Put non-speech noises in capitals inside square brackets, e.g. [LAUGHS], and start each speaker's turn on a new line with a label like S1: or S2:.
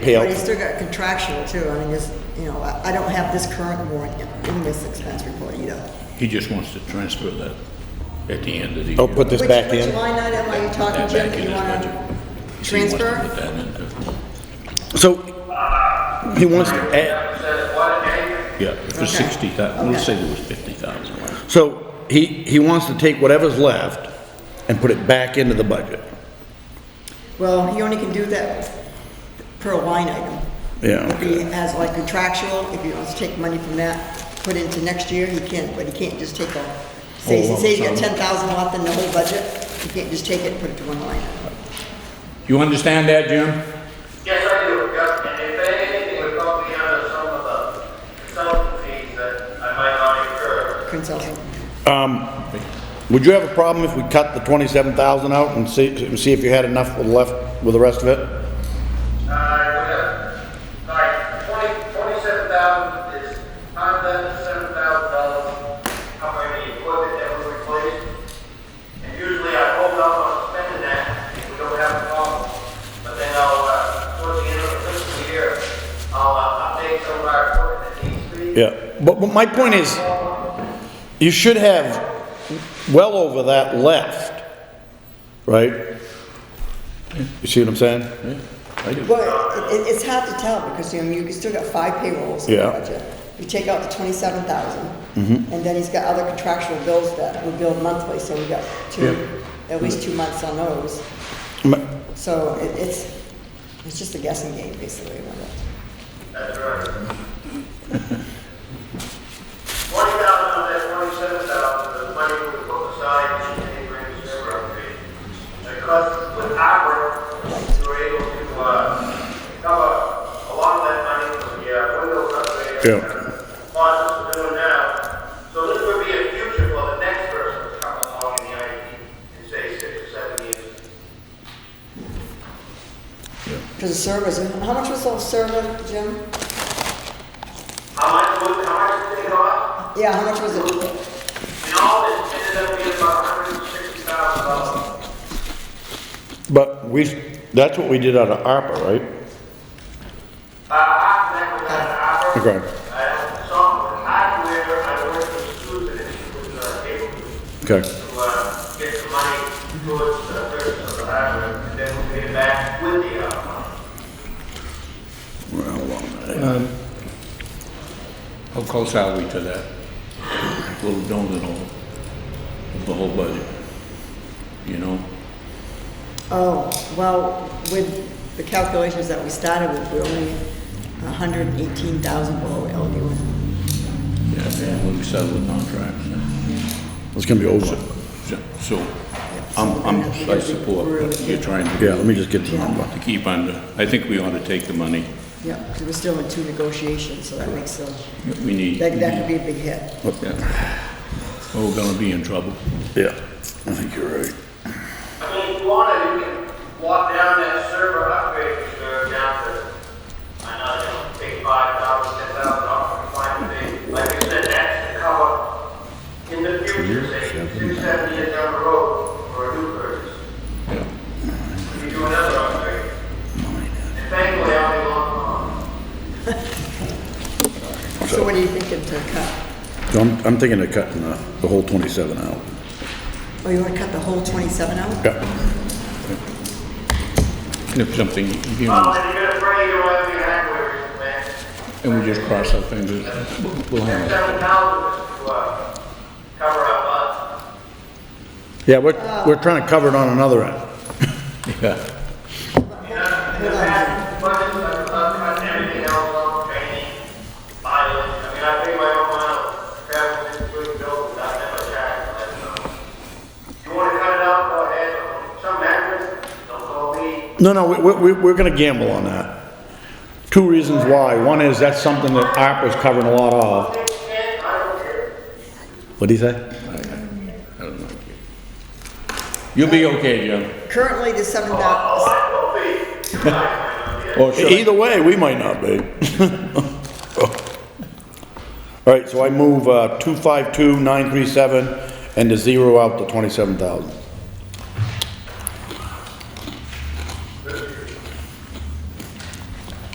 S1: But
S2: pay
S1: he's
S2: out.
S1: still got contractual too. I mean, this, you know, I I don't have this current warrant in this expense report either.
S3: He just wants to transfer that at the end of the year.
S2: I'll Oh, put this
S1: Which-
S2: back
S1: Which
S2: in.
S1: line item are you talking,
S3: That
S1: Jim,
S3: back
S1: that
S3: in
S1: you
S3: his
S1: want
S3: budget.
S1: to
S3: He wants to
S1: transfer?
S3: put that in.
S2: So he wants to add,
S3: Yeah, for
S1: Okay.
S3: sixty thousand, let's
S1: Okay.
S3: say there was fifty thousand.
S2: so he, he wants to take whatever's left and put it back into the budget.
S1: Well, he only can do that per line item.
S2: Yeah,
S1: If he
S2: okay.
S1: has like contractual, if he wants to take money from that, put into next year, he can, but he can't just take a, say,
S2: Whole lump
S1: say you got
S2: sum.
S1: ten thousand left in the whole budget, you can't just take it and put it to one line. item.
S3: You understand that, Jim?
S4: Yes, I do, yep, and if anything would help me out of some of the consultancies that I might not incur.
S1: Consulting.
S2: Would you have a problem if we cut the twenty-seven thousand out and see, and see if you had enough with left with the rest of it?
S4: I would have, like, twenty, twenty-seven thousand is, I'm done, seven thousand dollars, how many equipment that was replaced. And usually I hold off on spending that, if we don't have a problem, but then I'll, uh, towards the end of the fiscal year, I'll, uh, update some of our equipment that needs to be.
S2: Yeah, but, but my point is, you should have well over that left, right? You see what I'm saying?
S3: I do.
S1: Well, it, it- it's hard to tell because, you know, you still got five payrolls in the
S2: Yeah.
S1: budget. You take out the twenty-seven thousand, and then he's got other contractual bills that we bill monthly, so we got two, at least two months on those.
S2: Ma-
S1: So it, it's, it's just a guessing game, basically, about it.
S4: That's right. Twenty thousand of that twenty-seven thousand is money we put aside in any grant server upgrade. Because with ARPA, we were able to, uh, cover a lot of that money from the uh, windows upgrade.
S2: Yeah.
S4: Funds we're doing now. So this would be a future for the next person to come along in the IT in say six or seven years.
S1: Because the servers, how much was the server, Jim?
S4: How much would, how much did it cost?
S1: Yeah, how much was it?
S4: In all, it ended up being about hundred and sixty thousand dollars.
S2: But we, that's what we did out of ARPA, right?
S4: Uh, I connect with that operator.
S2: Okay.
S4: Uh, software, hardware, I work with Susan, and she was, uh, able to,
S2: Okay.
S4: uh, get some money towards the purchase of the hardware, and then we'll get it back with the, uh,
S3: How close are we to that little donut hole of the whole budget? You know?
S1: Oh, well, with the calculations that we started with, we're only a hundred and eighteen thousand below LD1.
S3: Yeah, when we settle the contracts. yeah.
S2: It's gonna be over.
S3: So- So, I'm, I'm, I support what you're trying to do.
S2: Yeah, let me just get the number.
S3: To keep under, I think we ought to take the money.
S1: Yeah, because we're still in two negotiations, so that makes a,
S3: We need.
S1: that, that could be a big hit.
S3: Yeah. Well, We're gonna be in trouble.
S2: Yeah, I think you're right.
S4: I mean, if you wanted, you can walk down that server upgrade reserve down to, I know, you know, take five thousand, ten thousand dollars, find a thing. Like you said, that's to cover in the future, say, six, seven years down the road, for a new purchase.
S3: Yeah.
S4: We do another upgrade. And thankfully, I'll be long gone.
S1: So what are you thinking to cut?
S2: So I'm, I'm thinking of cutting the, the whole twenty-seven out.
S1: Oh, you want to cut the whole twenty-seven out?
S2: Yeah.
S3: And If something, you
S4: Well,
S3: know,
S4: then you're gonna pray you don't have any hardware, man.
S3: and we just cross our fingers, we'll- we'll handle it.
S4: Seven thousand to, uh, cover up us.
S2: Yeah, we're, we're trying to cover it on another end.
S3: Yeah.
S4: You know, in the past, budgets, I've cut everything else off, training, mileage. I mean, I pay my own mileage, travel, this, good, build, I never charge, I don't know. You wanna cut it out, go ahead, some actors, don't call me.
S2: No, no, we, we, we're gonna gamble on that. Two reasons why. One is that's something that ARPA's covering a lot of.
S4: Take ten, I don't care.
S2: what do you say?
S3: I don't like it. You'll be okay, Jim.
S1: Currently, the seven
S4: Oh,
S1: thousand,
S4: I will be, you might, I don't care.
S3: Or should I?
S2: E- Either way, we might not be. [LAUGHS] All right, so I move, uh, two-five-two-nine-three-seven and to zero out the twenty-seven thousand.